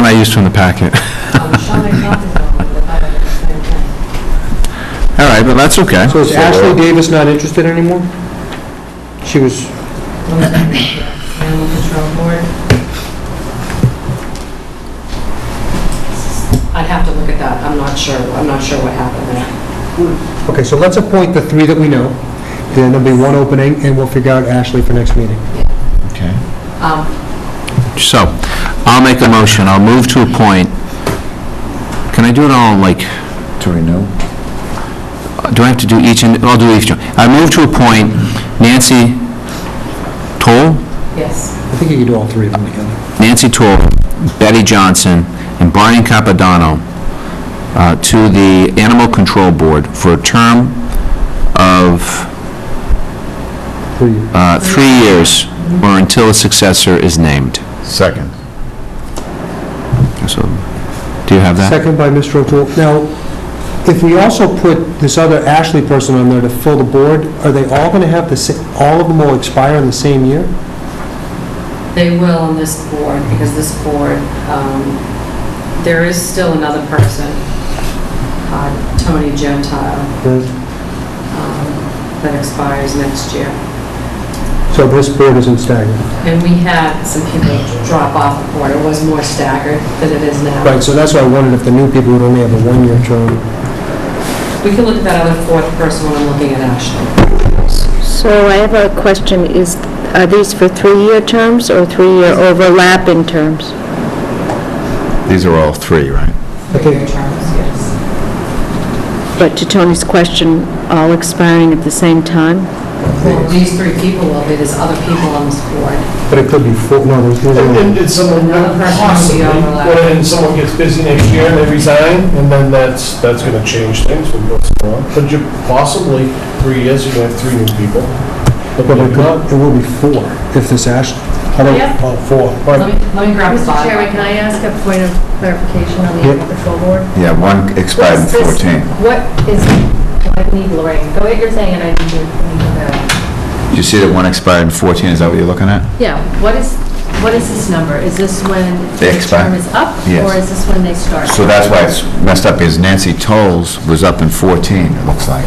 I used from the packet. All right, but that's okay. So is Ashley Davis not interested anymore? She was, Animal Control Board. I'd have to look at that, I'm not sure, I'm not sure what happened there. okay, so let's appoint the three that we know, then there'll be one opening, and we'll figure out Ashley for next meeting. Okay. Um, So, I'll make a motion, I'll move to appoint, can I do it all, like, To renew? do I have to do each, and I'll do each, I move to appoint Nancy Toll, yes, I think you could do all three of them together. Nancy Toll, Betty Johnson, and Brian Capadano uh, to the Animal Control Board for a term of Three. uh, three years or until a successor is named. Second. So, do you have that? Second by Mr. O'Toole. Now, if we also put this other Ashley person on there to fill the board, are they all going to have the, sa- all of them will expire in the same year? they will on this board, because this board, um, there is still another person, uh, Tony Gentile, um, that expires next year. So this board isn't staggered. And we had some people drop off the board, it was more staggered than it is now. Right, so that's why I wondered if the new people would only have a one-year term. We can look at that other fourth person when I'm looking at Ashley. So I have a question, is, are these for three-year terms or three-year overlapping terms? These are all three, right? Three-year terms, yes. But to Tony's question, all expiring at the same time? Well, these three people will be, there's other people on this board. But it could be full, no, there's And- no... And and someone, Another person would be possibly, overlapped. what if someone gets busy next year and they resign, and then that's, that's going to change things when it goes on. But you, possibly, three years, you're going to have three new people. But But it maybe not. could- it will be four if this Ashley, I don't, Yeah. oh, four. All Let me, right. let me grab the Mr. file. Chairman, can I ask a point of clarification on the Yeah. animal control board? Yeah, one expired in What's this- 14. What is, well, I need Lorraine, go what you're saying, and I need you, I need to know. You see that one expired in 14, is that what you're looking at? Yeah, what is, what is this number? Is this when They the expire. term is up? Yes. Or is this when they start? So that's why it's messed up, is Nancy Tolles was up in 14, it looks like.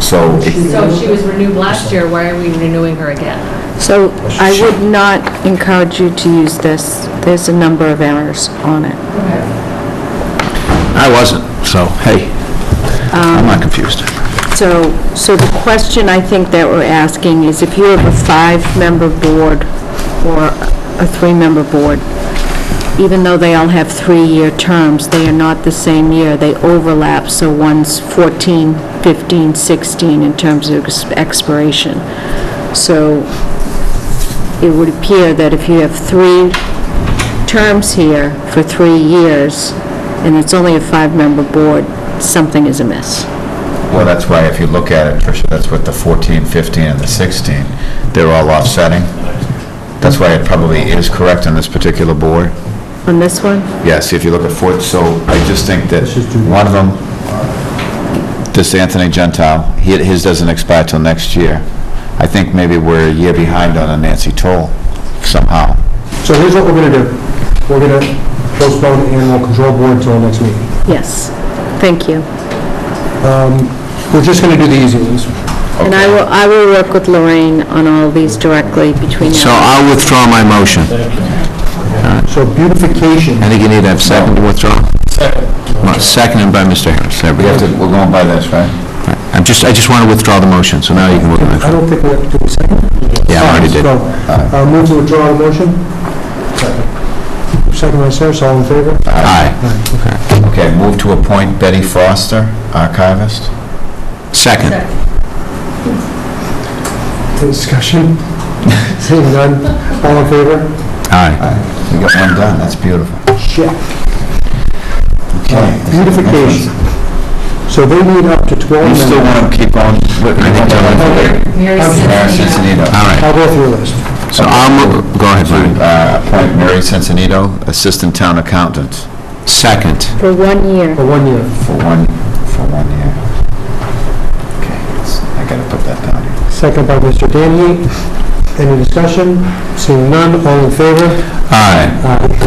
So, it- So if she was renewed last year, why are we renewing her again? So I would not encourage you to use this, there's a number of errors on it. I wasn't, so, hey, Um, I'm not confused. So, so the question I think that we're asking is if you have a five-member board or a three-member board, even though they all have three-year terms, they are not the same year, they overlap, so one's 14, 15, 16 in terms of ex- expiration. So it would appear that if you have three terms here for three years, and it's only a five-member board, something is amiss. well, that's why if you look at it, Tricia, that's what the 14, 15, and the 16, they're all offsetting. That's why it probably is correct on this particular board. On this one? Yes, if you look at fourth, so I just think that one of them, this Anthony Gentile, he- his doesn't expire till next year. I think maybe we're a year behind on a Nancy Toll somehow. So here's what we're going to do. We're going to postpone the animal control board until our next meeting. Yes, thank you. Um, We're just going to do the easy ones. And I will, I will work with Lorraine on all these directly between So now. I'll withdraw my motion. So beautification, I think you need to have second to withdraw. Second. Seconded by Mr. Harris, there we We go. have to, we're going by this, right? I'm just, I just want to withdraw the motion, so now you can work on I it. don't think we have to do a second. Yeah, I already did. So, uh, move to withdraw the motion. Second by Sarah, all in favor? Aye. Okay, move to appoint Betty Foster, archivist. Second. Discussion? Seeing none, all in favor? Aye. We got one done, that's beautiful. Check. Okay. Beautification. So they need up to 12 You members. still want to keep on? what- Mary Mary Cincinnati. Cincinnati. All right, I'll go through a list. so I'll, mo- go ahead, Brian. To uh, appoint Mary Sensenito, Assistant Town Accountant, Second. For one year. For one year. for one, for one year. Okay, it's- I gotta put that down here. Second by Mr. Danny. Any discussion? Seeing none, all in favor? Aye. Aye.